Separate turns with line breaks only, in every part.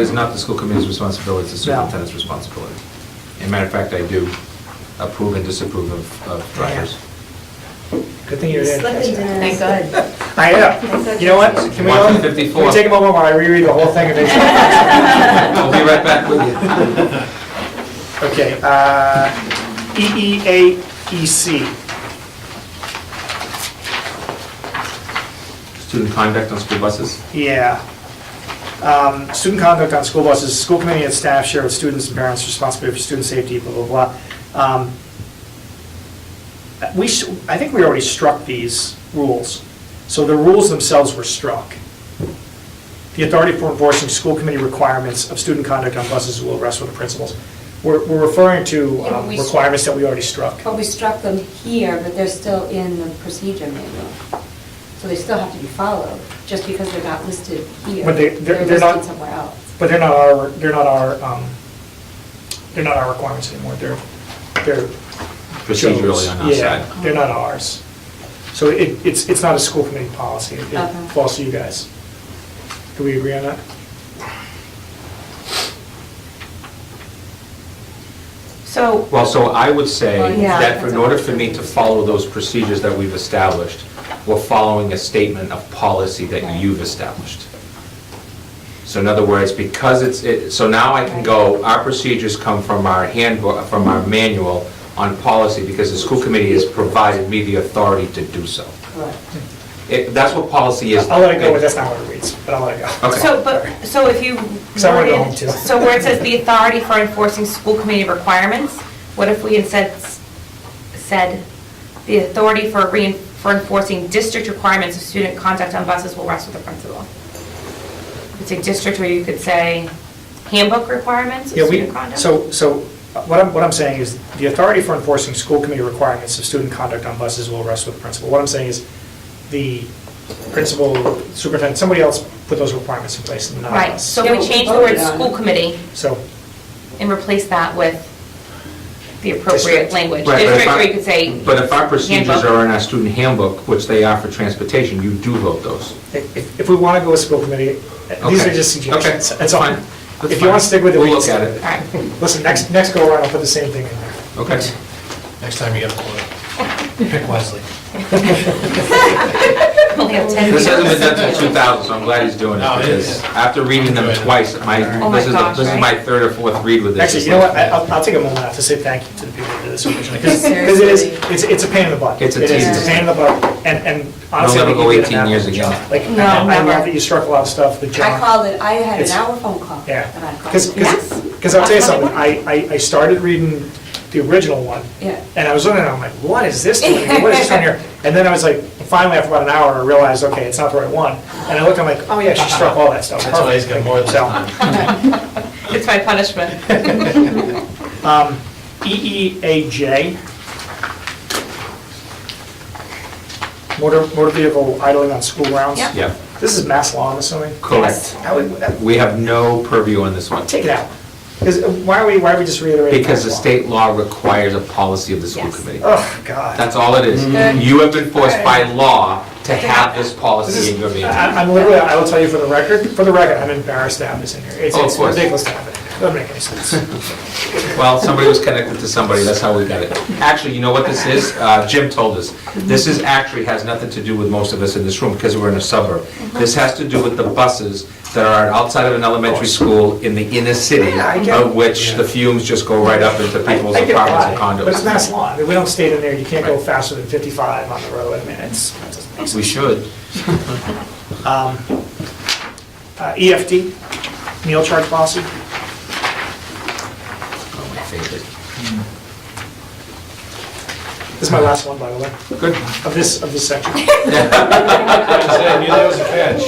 It's not the school committee's responsibility, it's the
No.
superintendent's responsibility. As a matter of fact, I do approve and disapprove of- of drivers.
Good thing you're there.
Slipping
Jessica.
down.
Thank God.
I know. You know what? Can we all,
One
can
fifty-four.
we take a moment while I reread the whole thing? and make sure?
I'll be right back with you.
Okay, uh, E EEAEC.
Student conduct on school buses.
Yeah. Um, Student conduct on school buses, school committee and staff share with students and parents responsibility for student safety, blah, blah, blah. Um, We, s- I think we already struck these rules, so the rules themselves were struck. The authority for enforcing school committee requirements of student conduct on buses will rest with the principals. We're we're referring to
Yeah,
um,
we- Oh.
requirements that we already struck.
But we struck them here, but they're still in the procedure manual. So they still have to be followed, just because they're not listed here.
But they- they're- they're not-
listed somewhere else.
But they're not our, they're not our, um, they're not our requirements anymore, they're, they're. Joe's.
Procedurally on our
Yeah,
side.
they're not ours. So it, it's, it's not a school committee policy, It-
Okay.
it falls to you guys. Do we agree on that?
So,
Well, so I would say
Well,
yeah,
that for- in
that's
order
what-
for me to follow those procedures that we've established, we're following a statement of policy that
Right.
you've established. So in other words, because it's, it- so now I can go, our procedures come from our handbook, from our manual on policy, because the school committee has provided me the authority to do so.
Correct.
It- That's what policy is.
I'll let it go, but that's not what it reads, but I'll let it go.
Okay.
so, but, so if you.
Because I wanna go home,
worded-
too.
So where it says the authority for enforcing school committee requirements, what if we instead s- said, the authority for rein, for enforcing district requirements of student conduct on buses will rest with the principal? It's a district where you could say handbook requirements
Yeah,
of
we,
student conduct?
so, so what I'm, what I'm saying is, the authority for enforcing school committee requirements of student conduct on buses will rest with the principal. What I'm saying is, the principal, superintendent, somebody else put those requirements in place, not
uh,
Right,
us.
so
Yeah,
if
we
we change the word
voted on it.
school committee
So,
and replace that with the
District.
appropriate language.
Right, but if
District
I-
where you could say.
But if our procedures
handbook.
are in our student handbook, which they are for transportation, you do vote those.
If, if we want to go with school committee, these are
Okay.
just suggestions,
Okay.
that's all.
Fine. That's
If you
fine.
want to stick with it, we
We'll
can
look
stick
at
with
it.
All right.
it. Listen, next, next go around, I'll put the same thing in there.
Okay.
Next time you get a quarter, pick Wesley.
Only have 10
This hasn't
years.
been done since 2000, so I'm glad he's doing it,
No, it
because
is.
after reading them twice, my,
Oh my
this is, the-
gosh,
this is my
right?
third or fourth read with this.
Actually, you know what, I- I'll, I'll take a moment out to say thank you to the people who did this originally, because it is,
Seriously.
it's, it's a pain in the butt.
It's a
It is,
tease.
it's a pain in the butt, and, and honestly,
never
I think you
go
did an
18 years
admirable
again.
job. Like,
No,
I I love
never.
that you struck a lot of stuff, the job.
I called it, I had an
It's-
hour phone call.
Yeah,
that I called.
because,
Yes.
because I'll tell you
That's what
something,
I
I, I I started reading the original one.
Yeah.
And I was looking at it, I'm like, what is this doing here? What is this doing here? And then I was like, finally, after about an hour, I realized, okay, it's not the right one. And I looked, I'm like, oh yeah, she struck all that stuff.
That's why he's got more than
So,
It's my punishment.
um, E EEAJ. Motor, motor vehicle idling on school grounds.
Yep.
Yeah,
This is mass law, I'm assuming.
correct.
I would, that-
We have no purview on this one,
take it out. Because why are we, why are we just reiterating?
because the
mass law?
state law requires a policy of the school
Yes. Mm-hmm.
committee.
Oh, God.
That's all it is. You have been forced by law to have this
This
policy in
is,
your meeting.
I- I'm literally, I will tell you for the record, for the record, I'm embarrassed to have this in here. It's
Oh, of
it's
course.
ridiculous to have it. Doesn't make any sense.
Well, somebody was connected to somebody, that's how we got it. Actually, you know what this is? Uh, Jim told us. This is actually, has nothing to do with most of us in this room, because we're in a suburb. This has to do with the buses that are outside of an elementary school in the inner city,
Yeah, I get it.
of which the fumes just go right up into people's
I get
apartments and
why, but it's
condos.
mass law. I mean, We don't state in there, you can't go
Right.
faster than 55 on the road. I mean, it's, it doesn't make
We
sense.
should.
Um, uh, EFD, meal charge policy.
Oh, my favorite.
This is my last one, by the way,
Good.
of this, of this section.
I knew that was a catch.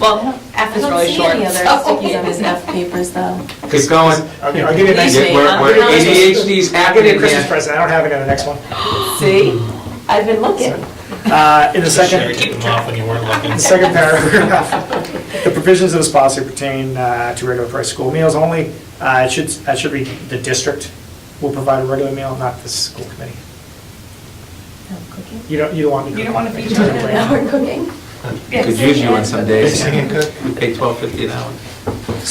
Well, F is really short. so-
stickies on his F papers, though.
Keep going.
I'll I'll give you a nice,
Easy.
I'll
Yeah, We're we're ADHD's
give you
happening,
a Christmas
man.
present. I don't have it on the next one.
See? I've been looking.
Uh, In the second.
Sherry took them off when you weren't looking.
The second paragraph, the provisions of this policy pertain uh, to regular price school meals only. Uh, It should, that should be the district will provide a regular meal, not the school committee. You don't, you don't want me to.
Oh, You don't want to feed
It's a
children
different
Now we're cooking.
Could use you on some days.
Singing good.
Pay twelve fifty an hour.